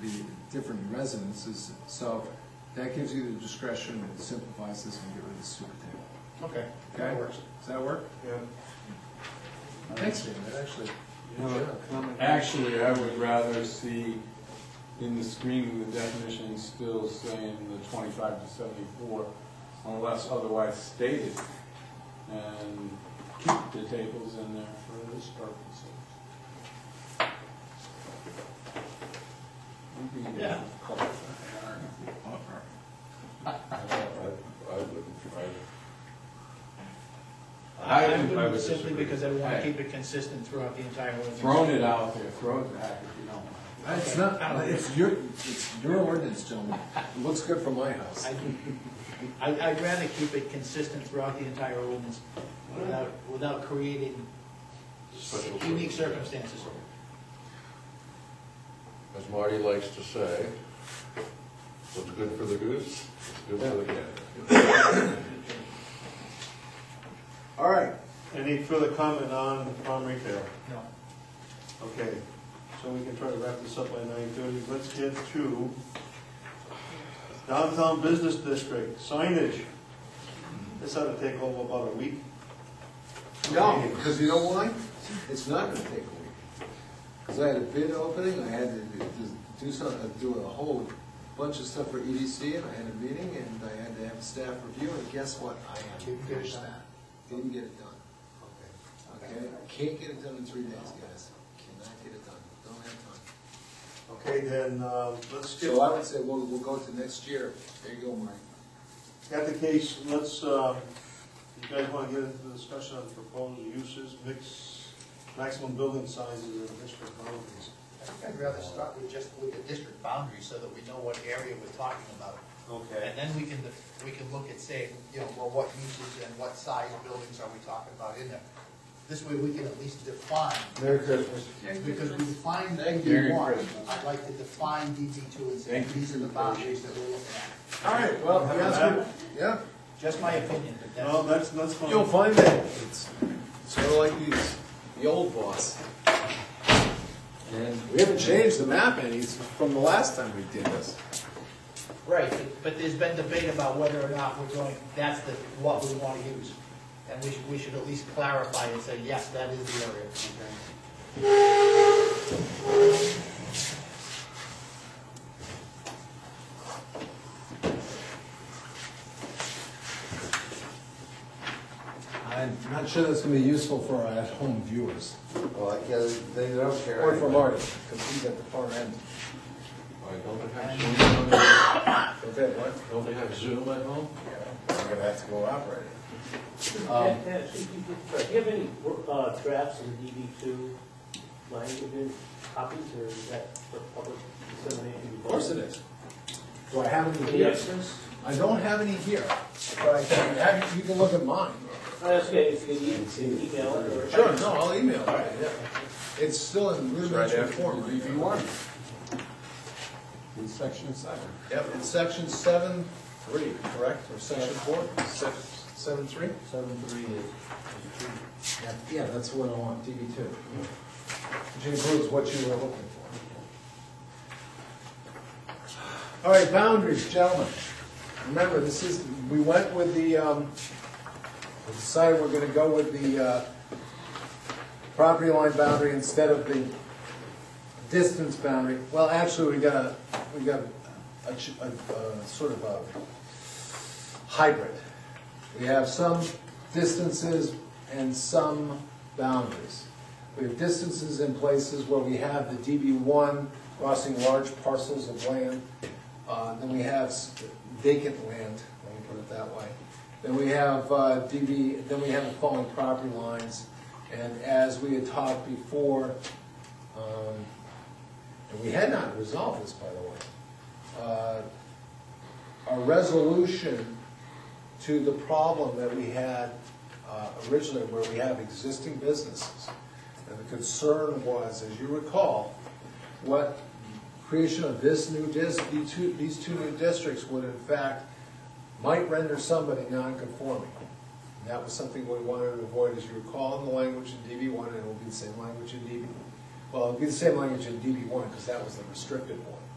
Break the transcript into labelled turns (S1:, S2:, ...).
S1: the different residences. So that gives you the discretion, it simplifies this and get rid of the super table.
S2: Okay,
S1: Okay?
S2: that works.
S1: Does that work?
S2: Yeah.
S1: Thanks, David, actually.
S3: You have a comment? Actually, I would rather see in the screening, the definition still saying the twenty-five to seventy-four unless otherwise stated. And keep the tables in there for this purpose. We'd be-
S2: Yeah.
S4: I wouldn't,
S5: I
S3: I- I
S5: wouldn't,
S4: would
S5: simply
S4: disagree.
S5: because I want
S3: Hey.
S5: to keep it consistent throughout the entire ordinance.
S3: Thrown it out there, throw it back if you don't mind.
S1: Uh, It's not, it's your, it's your ordinance, gentlemen. It looks good for my house.
S5: I- I, I'd rather keep it consistent throughout the entire ordinance without, without creating
S4: Special
S5: unique
S4: circumstances.
S5: circumstances.
S4: as Marty likes to say, what's good for the goose, is good for the gander.
S2: All right, any further comment on farm retail?
S5: No.
S2: Okay, so we can try to wrap this up by nine thirty. Let's get to downtown business district signage. This ought to take over about a week.
S1: No, because you know why? It's not gonna take a week. Because I had a bid opening, I had to do- do some, uh, do a whole bunch of stuff for EDC, and I had a meeting, and I had to have a staff review, and guess what? I haven't finished that. Didn't get it done. Okay, can't get it done in three days, guys. Cannot get it done, don't have time.
S2: Okay, then, uh, let's skip,
S1: So I would say, we'll, we'll go to next year. There you go, Mike.
S2: got the case, let's, uh, you guys wanna get into the discussion on proposed uses, mix, maximum building sizes and district boundaries?
S5: I think I'd rather start with just with the district boundary so that we know what area we're talking about.
S2: Okay.
S5: And then we can, we can look at saying, you know, well, what uses and what size buildings are we talking about in there? This way we can at least define,
S3: Merry Christmas.
S5: because we define
S1: Thank
S3: you.
S5: DB one.
S3: Merry Christmas.
S5: I'd like to define DB two and say,
S3: Thank you
S5: these are
S3: for
S5: the
S3: your
S5: boundaries that we're looking at.
S1: All right, well,
S2: Have
S1: yeah,
S2: that?
S1: that's good. yeah.
S5: Just my opinion, but that's.
S2: No, that's, that's fine.
S1: You'll find that it's sort of like these, the old boss. And we haven't changed the map any from the last time we did this.
S5: Right, but- but there's been debate about whether or not we're going, that's the, what we want to use. And we should, we should at least clarify and say, yes, that is the area.
S1: I'm not sure that's gonna be useful for our at-home viewers,
S4: Well, I guess they don't care.
S1: or for Marty, because he's at the far end.
S4: Why, don't they have Zoom, on there?
S1: Okay, what?
S4: don't they have Zoom at home?
S1: I'm gonna have to go operate it.
S6: Pat, Pat, should you get- do you have any uh, drafts of the DB two language in copies, or is that for public dissemination?
S1: Of course it is. Do I have any here?
S6: Yes, yes.
S1: I don't have any here, but I can, have- you can look at mine.
S6: That's okay, if you can email it or.
S1: Sure, no, I'll email it, yeah. It's still in rudimentary form. right now.
S3: In section seven.
S1: Yep, in section seven, three, correct, or section four? Seven, seven, three?
S7: Seven three is,
S1: Yeah, that's what I want, DB two. Which includes what you were looking for. All right, boundaries, gentlemen. Remember, this is, we went with the, um, we decided we're gonna go with the, uh, property line boundary instead of the distance boundary. Well, actually, we got a, we got a, ch- a, a sort of a hybrid. We have some distances and some boundaries. We have distances in places where we have the DB1 crossing large parcels of land. Uh, Then we have s- vacant land, let me put it that way. Then we have uh, DB, then we have the following property lines. And as we had talked before, um, and we had not resolved this, by the way, uh, a resolution to the problem that we had uh, originally where we have existing businesses. And the concern was, as you recall, what creation of this new dis, these two, these two new districts would in fact, might render somebody non-conforming. And that was something we wanted to avoid, as you recall, in the language in DB one, and it will be the same language in DB. Well, it'll be the same language in DB one, because that was the restricted one.